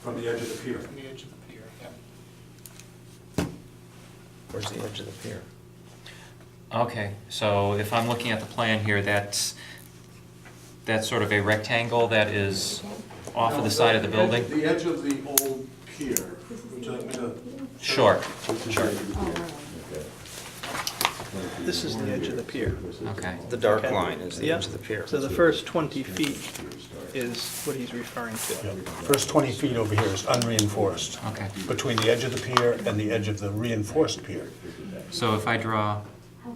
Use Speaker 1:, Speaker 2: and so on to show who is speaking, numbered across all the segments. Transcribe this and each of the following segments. Speaker 1: from the edge of the pier.
Speaker 2: from the edge of the pier, yeah.
Speaker 3: Where's the edge of the pier?
Speaker 4: Okay, so if I'm looking at the plan here, that's, that's sort of a rectangle that is off of
Speaker 1: No,
Speaker 4: the side of the
Speaker 1: edge-
Speaker 4: building?
Speaker 1: The edge of the old pier. Would you like me to?
Speaker 4: Sure, sure,
Speaker 3: This is the edge of the pier.
Speaker 4: okay.
Speaker 3: The dark
Speaker 5: Okay.
Speaker 3: line is the
Speaker 5: Yeah.
Speaker 3: edge of the pier.
Speaker 5: So the first 20 feet is what he's referring to.
Speaker 6: First 20 feet over here is unreinforced,
Speaker 4: Okay,
Speaker 6: between the edge of the pier and the edge of the reinforced pier.
Speaker 4: so if I draw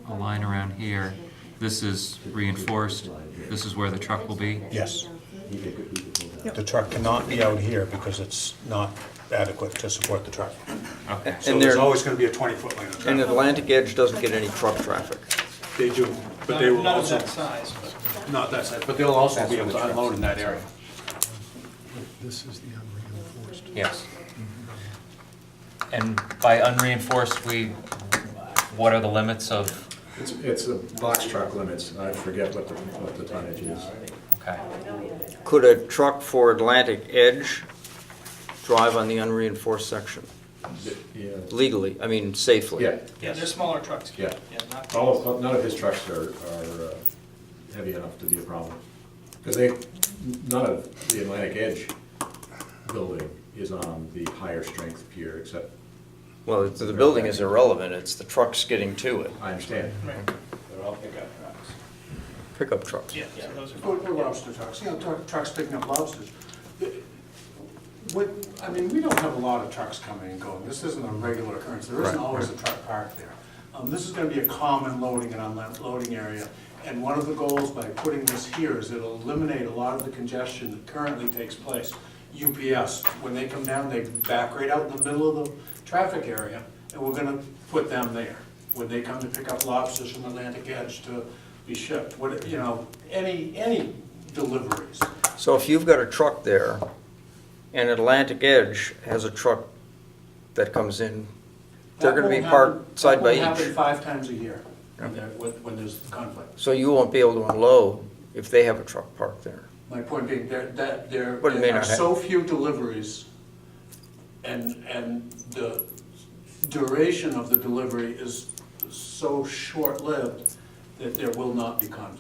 Speaker 4: a line around here, this is reinforced, this is where the truck will be?
Speaker 6: Yes. The truck cannot be out here because it's not adequate to support the truck.
Speaker 4: Okay,
Speaker 1: So
Speaker 3: And
Speaker 1: there's
Speaker 3: there,
Speaker 1: always gonna be a twenty-foot lane of
Speaker 3: and
Speaker 1: traffic.
Speaker 3: Atlantic Edge doesn't get any truck traffic.
Speaker 1: They do, but they will
Speaker 2: Not of
Speaker 1: also,
Speaker 2: that size, but.
Speaker 1: not that side, but they'll also be able to unload in that area.
Speaker 7: This is the unreinforced.
Speaker 4: yes. And by unreinforced, we, what are the limits of,
Speaker 8: It's, it's the box truck limits, I forget what the, what the tonnage is.
Speaker 4: okay,
Speaker 3: Could a truck for Atlantic Edge drive on the unreinforced section
Speaker 8: Yeah,
Speaker 3: legally, I mean safely?
Speaker 8: yeah,
Speaker 2: Yeah, they're smaller trucks.
Speaker 8: Yeah.
Speaker 2: not-
Speaker 8: all of, none of his trucks are, are uh, heavy enough to be a problem. Because they, none of the Atlantic Edge building is on the higher strength pier, except,
Speaker 3: Well, it's- the building is irrelevant, it's the trucks getting to it,
Speaker 8: I understand.
Speaker 2: Right,
Speaker 1: They're all pickup trucks.
Speaker 3: pickup trucks.
Speaker 2: yeah, so those
Speaker 1: Or
Speaker 2: are,
Speaker 1: or lobster trucks, you know, truck- trucks picking up lobsters. What, I mean, we don't have a lot of trucks coming and going, this isn't a regular occurrence, there isn't always a truck parked there. Um, This is gonna be a common loading and unloading area, and one of the goals by putting this here is it'll eliminate a lot of the congestion that currently takes place. UPS, when they come down, they back right out in the middle of the traffic area, and we're gonna put them there. When they come to pick up lobsters from Atlantic Edge to be shipped, what, you know, any, any deliveries.
Speaker 3: So if you've got a truck there, and Atlantic Edge has a truck that comes in, they're
Speaker 1: That
Speaker 3: gonna be
Speaker 1: won't happen-
Speaker 3: parked side by
Speaker 1: That won't happen
Speaker 3: each.
Speaker 1: five times a year when there- when when there's conflict.
Speaker 3: So you won't be able to unload if they have a truck parked there.
Speaker 1: My point being, there, that, there
Speaker 3: But it may
Speaker 1: there are
Speaker 3: not hap-
Speaker 1: so few deliveries, and, and the duration of the delivery is so short-lived that there will not be conflict.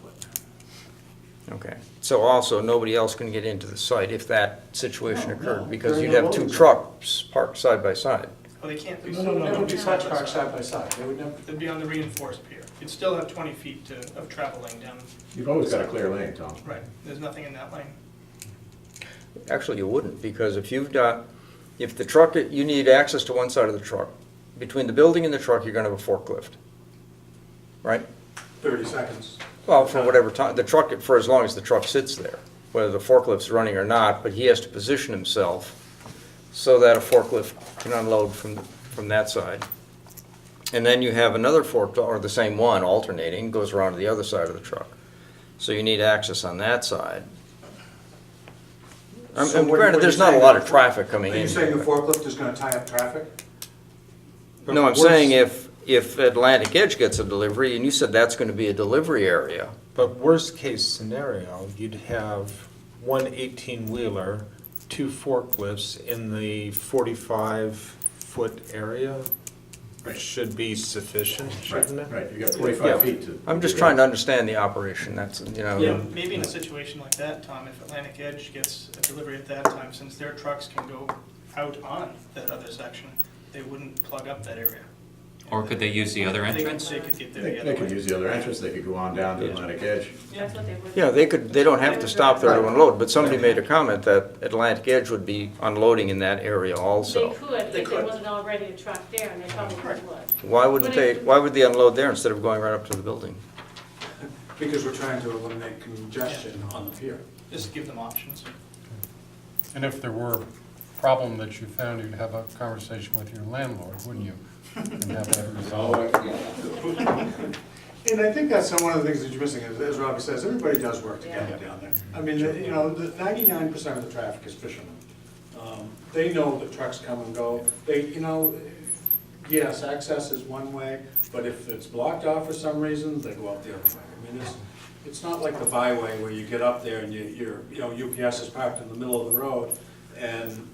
Speaker 3: Okay, so also, nobody else can get into the site if that situation
Speaker 1: No, no,
Speaker 3: occurred, because
Speaker 1: during
Speaker 3: you'd
Speaker 1: the
Speaker 3: have two
Speaker 1: loading zone.
Speaker 3: trucks parked side by side.
Speaker 2: well, they can't, they
Speaker 1: No, no,
Speaker 2: still
Speaker 1: no,
Speaker 2: don't be
Speaker 1: no,
Speaker 2: side
Speaker 1: trucks
Speaker 2: by
Speaker 1: parked
Speaker 2: side.
Speaker 1: side by side, they would never,
Speaker 2: They'd be on the reinforced pier. You'd still have 20 feet to, of travel lane down,
Speaker 8: You've always got a clear lane, Tom.
Speaker 2: right, there's nothing in that lane.
Speaker 3: Actually, you wouldn't, because if you've got, if the truck, you need access to one side of the truck. Between the building and the truck, you're gonna have a forklift, right?
Speaker 1: thirty seconds.
Speaker 3: Well,
Speaker 1: Uh,
Speaker 3: for whatever time, the truck, for as long as the truck sits there, whether the forklift's running or not, but he has to position himself so that a forklift can unload from, from that side. And then you have another fork, or the same one alternating, goes around to the other side of the truck. So you need access on that side. I'm-
Speaker 1: So
Speaker 3: I'm-
Speaker 1: what- what
Speaker 3: Granted,
Speaker 1: you're
Speaker 3: there's not a
Speaker 1: saying-
Speaker 3: lot of traffic coming
Speaker 1: Are
Speaker 3: in.
Speaker 1: you saying the
Speaker 3: here,
Speaker 1: forklift is gonna tie up traffic?
Speaker 3: but- No, I'm
Speaker 1: What is-
Speaker 3: saying if, if Atlantic Edge gets a delivery, and you said that's gonna be a delivery area,
Speaker 9: But worst-case scenario, you'd have one 18-wheeler, two forklifts in the 45-foot area, which should be sufficient,
Speaker 8: Right,
Speaker 9: shouldn't it?
Speaker 8: right, you've got
Speaker 3: Yeah.
Speaker 8: forty-five feet to.
Speaker 3: I'm just trying to understand the operation, that's, you
Speaker 4: Oh.
Speaker 3: know.
Speaker 2: Yeah, maybe in a situation like that, Tom, if Atlantic Edge gets a delivery at that time, since their trucks can go out on that other section, they wouldn't plug up that area.
Speaker 4: or could they use the other
Speaker 2: They could-
Speaker 4: entrance?
Speaker 2: They could get there
Speaker 8: They
Speaker 2: the
Speaker 8: they
Speaker 2: other
Speaker 8: could
Speaker 2: way.
Speaker 8: use the other entrance, they could go on down to Atlantic Edge.
Speaker 2: Yeah,
Speaker 3: Yeah, they could, they don't have to stop there to unload, but somebody made a comment that Atlantic Edge would be unloading in that area
Speaker 10: They
Speaker 3: also.
Speaker 10: could, if
Speaker 2: They
Speaker 10: there
Speaker 2: could.
Speaker 10: wasn't already a truck there, and they probably
Speaker 2: Correct.
Speaker 10: would.
Speaker 3: Why wouldn't they, why would they unload there instead of going right up to the building?
Speaker 1: Because we're trying to eliminate congestion on the pier.
Speaker 2: Just give them options.
Speaker 7: And if there were a problem that you found, you'd have a conversation with your landlord, wouldn't you? And have that resolved.
Speaker 1: And I think that's one of the things that you're missing, is, as Robbie says, everybody does work together down there. I mean, you know, ninety-nine percent of the traffic is fishermen. Um, They know that trucks come and go, they, you know, yes, access is one way, but if it's blocked off for some reason, they go out the other way. I mean, it's, it's not like the byway where you get up there and you, you're, you know, UPS is parked in the middle of the road, and